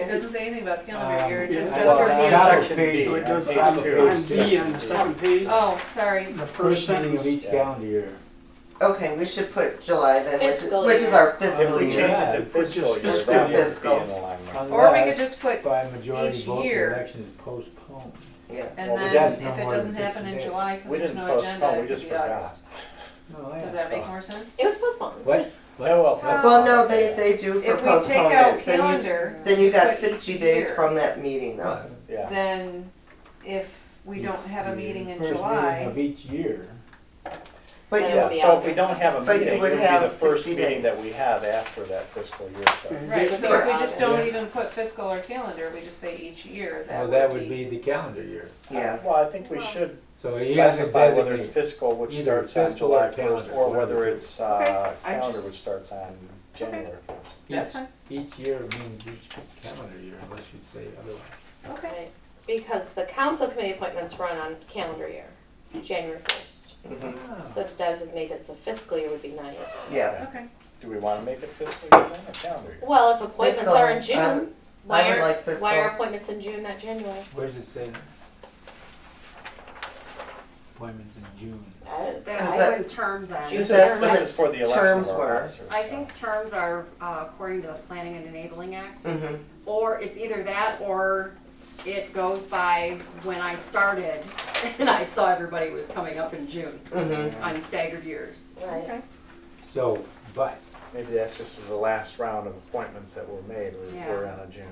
It doesn't say anything about calendar Um, year, it yeah, just says well, for that- the- that'll Section be B, on it goes page on two. on B on the second page, Oh, sorry, the first meeting of each Yeah. calendar year. Okay, we should put July then, which is, Fiscal which is our If fiscal we year. change- change it to fiscal year, fiscal that would be fiscal. in alignment. or we could just put, By majority each vote, the year. election is postponed. Yeah. and Well, then that's if no it more than doesn't happen 60 in days. July, We because there's didn't no agenda, postpone, we it could just be August. forgot. No, I Does that make saw. more sense? It was postponed. What? Oh, well, that's- Well, no, they, they do for If we take out postponement, then you, calendar, then you got put sixty each days year. from that meeting though. Yeah. then if we don't have a The meeting in first July, Of each year. But you, Yeah. Yeah, so if we don't have a But you meeting, it would would be have the first 60 meeting that days. Mm-hmm. we have after that fiscal year starts. right, so if we just Correct. don't even put fiscal or calendar, we just say each year, Well, Oh, that would be the calendar year. yeah, Well, I think we should So he has to specify whether it's designate. fiscal, which either starts on fiscal or July first, calendar, or one of the whether two. it's, uh, I calendar, just- which starts on January first. That's Each- fine. Each year means each calendar year, unless you say otherwise. Okay. Right. Because the council committee appointments run on calendar year, January first. Ah. Oh. So to designate it's a fiscal year would be nice. yeah. Okay. Do we wanna make it fiscal year then, or calendar year? Well, if appointments are in Fiscal. I would- June, why would are, like fiscal. why are appointments in June, not January? Where's it say? Appointments in June. I- Is That's that- when terms end. This is, That's when this is for the election terms of were. our officers. I think terms are uh, according to the Planning and Enabling Act, Mhm. or it's either that or it goes by when I started and I saw everybody was coming up in June Mhm. on staggered years. Right. So, but, Maybe that's just the last round of appointments that were made, we Yeah. were on a June.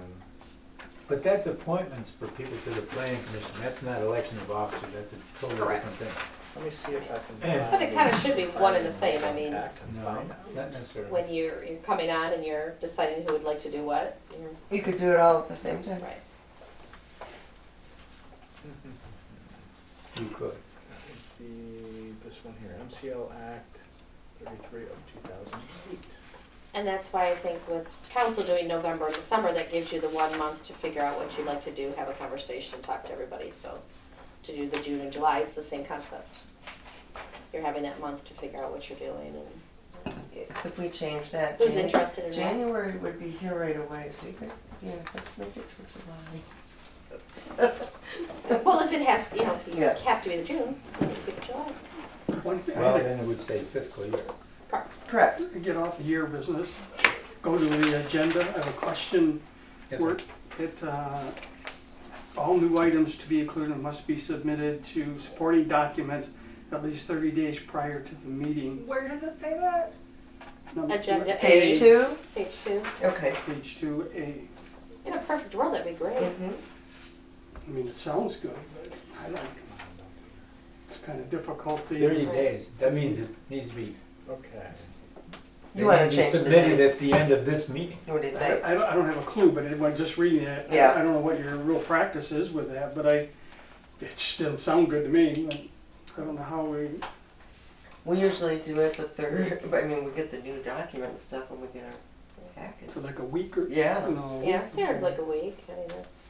but that's appointments for people to the planning commission, that's not election of officers, that's a totally Correct. different thing. Let me see if I can. And- But it kinda should be one and the same, I mean, Contact and No, find out. Um, not necessarily. when you're, you're coming on and you're deciding who would like to do what, you're- You could do it all at the same time. right. You could. The, this one here, MCL Act thirty-three of two thousand eight. And that's why I think with council doing November and December, that gives you the one month to figure out what you'd like to do, have a conversation, talk to everybody, so. To do the June and July, it's the same concept. You're having that month to figure out what you're doing and It's if we change that. who's Jan- interested in what. January would be here right away, so you guys, yeah, let's make it to July. Well, if it has, you know, you Yeah. have to be in June, you have to be in July, One thing, Well, I then it would say fiscal year. correct. Correct. had to get off the year business, go to the agenda, I have a question. Yes, sir. Where It, uh, all new items to be included must be submitted to supporting documents at least thirty days prior to the meeting. Where does it say that? Number- Agenda Page A, two, page two. okay. Page two A, In a perfect world, that'd be great. Mhm. I mean, it sounds good, but I don't, it's kind of difficult to. Thirty days, that means it needs to be, Okay. it You wanna needs to be change the submitted days. at the end of this meeting. What do you I, think? I don't, I don't have a clue, but when just reading that, I- Yeah. I don't know what your real practice is with that, but I, it just didn't sound good to me. I don't know how we, We usually do it the third, but I mean, we get the new document and stuff when we get our package. for like a week or, you Yeah. know. Yeah, standard's like a week, I mean, that's,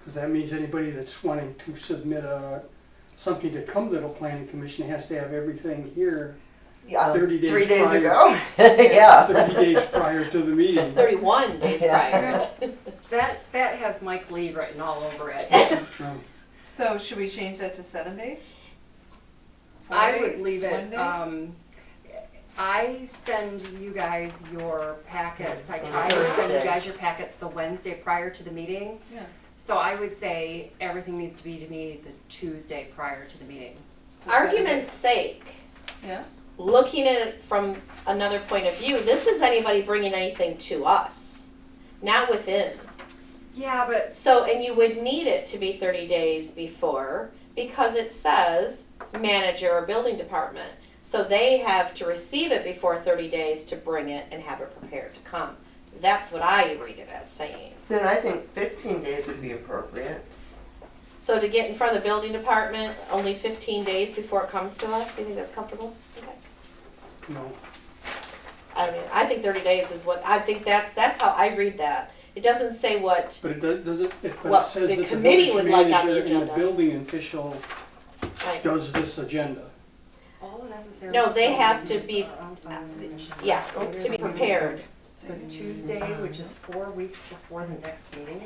Because that means anybody that's wanting to submit a, something to come to the planning commission has to have everything here Yeah, um, 30 days Three days prior. ago, yeah. thirty days prior to the meeting. thirty-one days prior. Yeah. That, that has Mike Lee written all over it. Um, So should we change that to seven days? Four I would days? leave One it, day? um, I send you guys your packets, I try to send you Thursday. guys your packets the Wednesday prior to the meeting. Yeah. So I would say everything needs to be to me the Tuesday prior to the meeting. Argument's sake, Yeah, looking at it from another point of view, this is anybody bringing anything to us, not within. Yeah, but So, and you would need it to be 30 days before because it says manager or building department. So they have to receive it before 30 days to bring it and have it prepared to come. That's what I read it as saying. Then I think fifteen days would be appropriate. So to get in front of the building department only 15 days before it comes to us, you think that's comfortable? Okay. No, I mean, I think 30 days is what, I think that's, that's how I read that. It doesn't say what, but it does, does it, it- but Well, it says the that the committee village would like on the manager and the agenda. building official like, does this agenda. all the necessary. No, they have to be- uh, yeah, to be prepared. The Tuesday, which is four weeks before the next meeting,